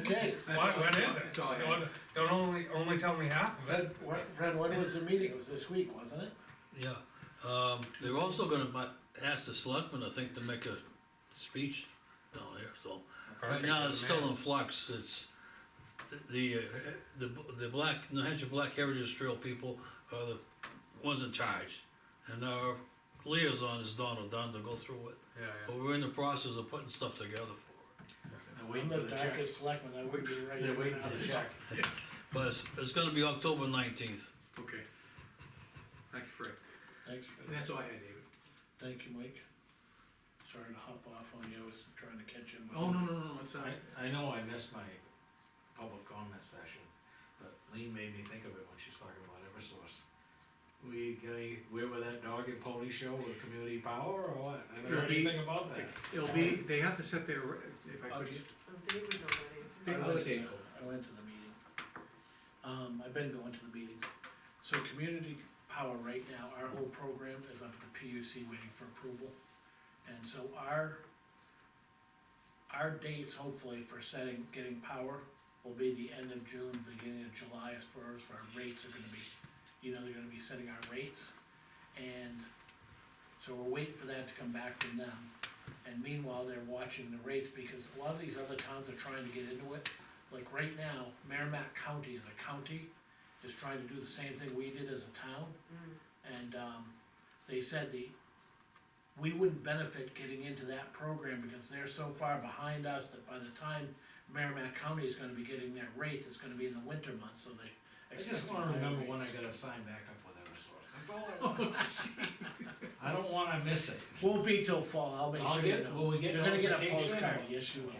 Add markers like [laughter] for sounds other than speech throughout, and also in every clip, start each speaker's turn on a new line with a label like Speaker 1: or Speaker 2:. Speaker 1: Okay.
Speaker 2: What, what is it?
Speaker 3: That's all I had.
Speaker 2: Don't, don't only, only tell me half of it.
Speaker 1: Fred, what, Fred, when was the meeting? It was this week, wasn't it?
Speaker 4: Yeah, um, they're also gonna mi- ask the selectmen, I think, to make a speech down here, so. Right
Speaker 2: Perfect,
Speaker 4: now, it's
Speaker 2: man.
Speaker 4: still in flux, it's, the, uh, the, the black, New Hampshire Black Heritage Trail people are the ones in charge. And our liaison is Donald Dunn to go through it,
Speaker 2: Yeah, yeah.
Speaker 4: but we're in the process of putting stuff together for it.
Speaker 3: They're
Speaker 1: I'm
Speaker 3: waiting for
Speaker 1: the
Speaker 3: the check.
Speaker 1: darkest selectman, I wouldn't be ready.
Speaker 3: They're waiting for the check.
Speaker 4: But it's, it's gonna be October nineteenth.
Speaker 3: Okay. Thank you, Fred.
Speaker 1: Thanks,
Speaker 3: And
Speaker 1: Fred.
Speaker 3: that's all I had, David.
Speaker 1: Thank you, Mike. Sorry to hop off on you, I was trying to catch him.
Speaker 3: Oh, no, no, no, no, it's all right.
Speaker 5: I, I know I missed my public comment session, but Lean made me think of it when she was talking about Eversource. We gonna, we're with that dog and pony show with community power or what? I don't know
Speaker 3: It'll be-
Speaker 5: anything about that.
Speaker 3: It'll be, they have to set their, if I could,
Speaker 6: Oh, Dave would know that
Speaker 1: I
Speaker 6: answer.
Speaker 3: Big
Speaker 1: went to,
Speaker 3: potato.
Speaker 1: I went to the meeting. Um, I've been going to the meetings. So community power right now, our whole program is up at the PUC waiting for approval. And so our, our dates hopefully for setting, getting power will be the end of June, beginning of July as far as our rates are gonna be. You know, they're gonna be setting our rates and so we're waiting for that to come back from them. And meanwhile, they're watching the rates, because a lot of these other towns are trying to get into it. Like right now, Merrimack County as a county is trying to do the same thing we did as a town. And, um, they said the, we wouldn't benefit getting into that program because they're so far behind us that by the time Merrimack County is gonna be getting their rates, it's gonna be in the winter months, so they.
Speaker 5: I just
Speaker 1: expect
Speaker 5: wanna
Speaker 1: higher
Speaker 5: remember when I
Speaker 1: rates.
Speaker 5: gotta sign back up with Eversource, that's all I want. [laughs] I don't wanna miss it.
Speaker 1: Won't be till fall, I'll make
Speaker 5: I'll
Speaker 1: sure you
Speaker 5: get-
Speaker 1: know.
Speaker 5: will we get
Speaker 1: You're gonna get a
Speaker 5: notification or-
Speaker 1: postcard, yes you will.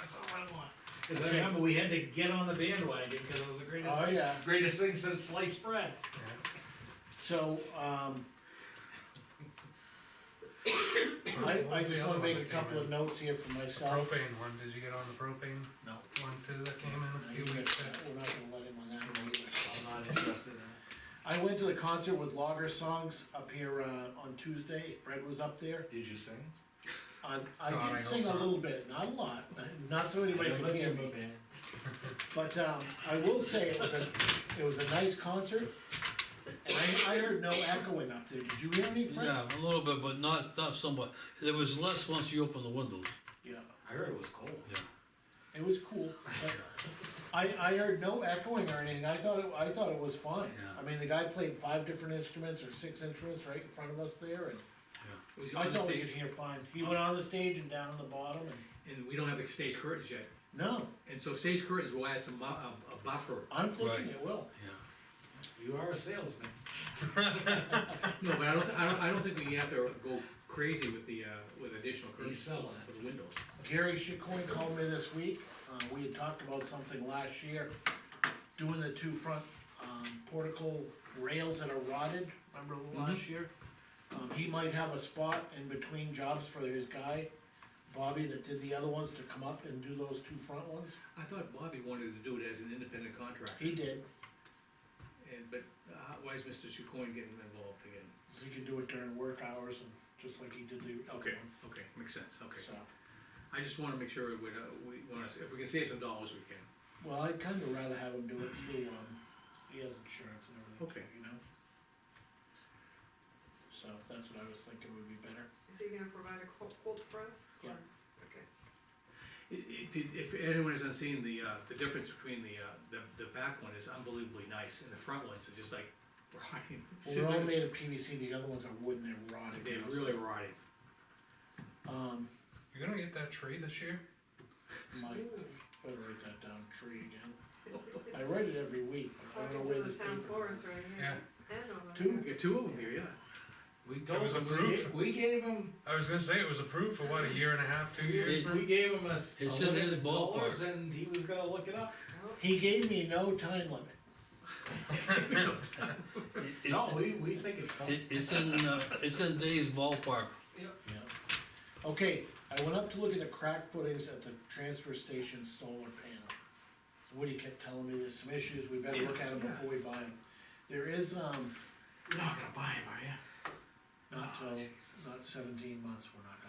Speaker 5: That's all I want. Cause I remember we had to get on the bandwagon, cause it was the
Speaker 1: Oh,
Speaker 5: greatest,
Speaker 1: yeah,
Speaker 5: greatest thing since sliced bread.
Speaker 1: so, um. I, I just wanna make a couple of notes here for myself.
Speaker 2: Propane one, did you get on the propane?
Speaker 5: No.
Speaker 2: One too that came in a
Speaker 1: We're
Speaker 2: few
Speaker 1: not gonna
Speaker 2: weeks back?
Speaker 1: let him on that one either.
Speaker 5: I'm not interested in it.
Speaker 1: I went to the concert with Logger Songs up here, uh, on Tuesday, Fred was up there,
Speaker 5: Did you sing?
Speaker 1: I, I
Speaker 2: God, I
Speaker 1: did
Speaker 2: hope
Speaker 1: sing a
Speaker 2: not.
Speaker 1: little bit, not a lot, not so anybody
Speaker 5: I
Speaker 1: could
Speaker 5: looked
Speaker 1: hear
Speaker 5: in
Speaker 1: me.
Speaker 5: the band.
Speaker 1: But um, I will say it was a, it was a nice concert, and I, I heard no echoing up there, did you hear any, Fred?
Speaker 4: Yeah, a little bit, but not, not somewhat, there was less once you open the windows,
Speaker 1: Yeah,
Speaker 5: I heard it was cold.
Speaker 4: yeah.
Speaker 1: it was cool, but I, I heard no echoing or anything, I thought, it- I thought it was fine.
Speaker 4: Yeah.
Speaker 1: I mean, the guy played five different instruments or six instruments right in front of us there, and
Speaker 3: was he
Speaker 1: I
Speaker 3: on the
Speaker 1: thought we could
Speaker 3: stage?
Speaker 1: hear fine, he went on the stage and down on the bottom, and,
Speaker 3: And we don't have the stage curtains yet,
Speaker 1: no,
Speaker 3: and so stage curtains will add some, bu- a, a buffer.
Speaker 1: I'm thinking
Speaker 4: Right.
Speaker 1: it will.
Speaker 5: You are a salesman.
Speaker 3: No, but I don't, thi- I don't, I don't think we have to go crazy with the, uh, with additional
Speaker 5: He's
Speaker 3: curtains
Speaker 5: selling
Speaker 3: for the windows.
Speaker 1: Gary Chicoine called me this week, uh, we had talked about something last year, doing the two front, um, portical rails that are rotted, remember
Speaker 3: Mm-hmm.
Speaker 1: last year? Um, he might have a spot in between jobs for his guy, Bobby, that did the other ones to come up and do those two front ones,
Speaker 3: I thought Bobby wanted to do it as an independent contractor,
Speaker 1: he did,
Speaker 3: and, but uh, why is Mr. Chacon getting involved again?
Speaker 1: so he could do it during work hours and just like he did the other
Speaker 3: Okay,
Speaker 1: one,
Speaker 3: okay, makes sense, okay.
Speaker 1: so.
Speaker 3: I just wanna make sure we, uh, we wanna, s- if we can save some dollars, we can.
Speaker 1: Well, I'd kinda rather have him do it through, um, he has insurance and everything,
Speaker 3: Okay.
Speaker 1: you know? So that's what I was thinking would be better.
Speaker 6: Is he gonna provide a quote, quote for us?
Speaker 1: Yeah.
Speaker 6: Okay.
Speaker 3: It, it, did- if anyone hasn't seen the, uh, the difference between the, uh, the, the back one is unbelievably nice, and the front ones are just like [laughs] rotting.
Speaker 1: Well, They're all made of PVC, the other ones are wood and they're rotted.
Speaker 3: They're
Speaker 1: now, so,
Speaker 3: really rotting.
Speaker 1: Um,
Speaker 2: You gonna get that tree this year?
Speaker 1: Mike, better write that down, tree again. I write it every week, but I don't know
Speaker 6: Talking
Speaker 1: where
Speaker 6: to the
Speaker 1: this
Speaker 6: town
Speaker 1: paper
Speaker 6: forest
Speaker 1: is.
Speaker 6: right
Speaker 2: Yeah,
Speaker 6: here. And over
Speaker 1: Two.
Speaker 6: here.
Speaker 3: We got two of them here, yeah.
Speaker 5: We
Speaker 2: That
Speaker 5: told
Speaker 2: was
Speaker 5: him, we
Speaker 2: approved.
Speaker 5: ga- we gave him,
Speaker 2: I was gonna say it was approved for what, a year and a half, two years?
Speaker 5: we gave him a. s-
Speaker 4: It's
Speaker 5: a
Speaker 4: in his
Speaker 5: limited
Speaker 4: ballpark.
Speaker 5: dollars And he was gonna look it up.
Speaker 6: Well,
Speaker 1: He gave me no time limit.
Speaker 2: [laughs]
Speaker 4: It- it's-
Speaker 5: No, we, we think it's coming.
Speaker 4: It, it's in, uh, it's in Dave's ballpark.
Speaker 1: Yeah. Okay, I went up to look at the crack footings at the transfer station solar panel. Woody kept telling me there's some issues, we better look at them before we buy them. There is, um,
Speaker 3: You're not gonna buy them, are you?
Speaker 1: not till, not uh, seventeen months, we're not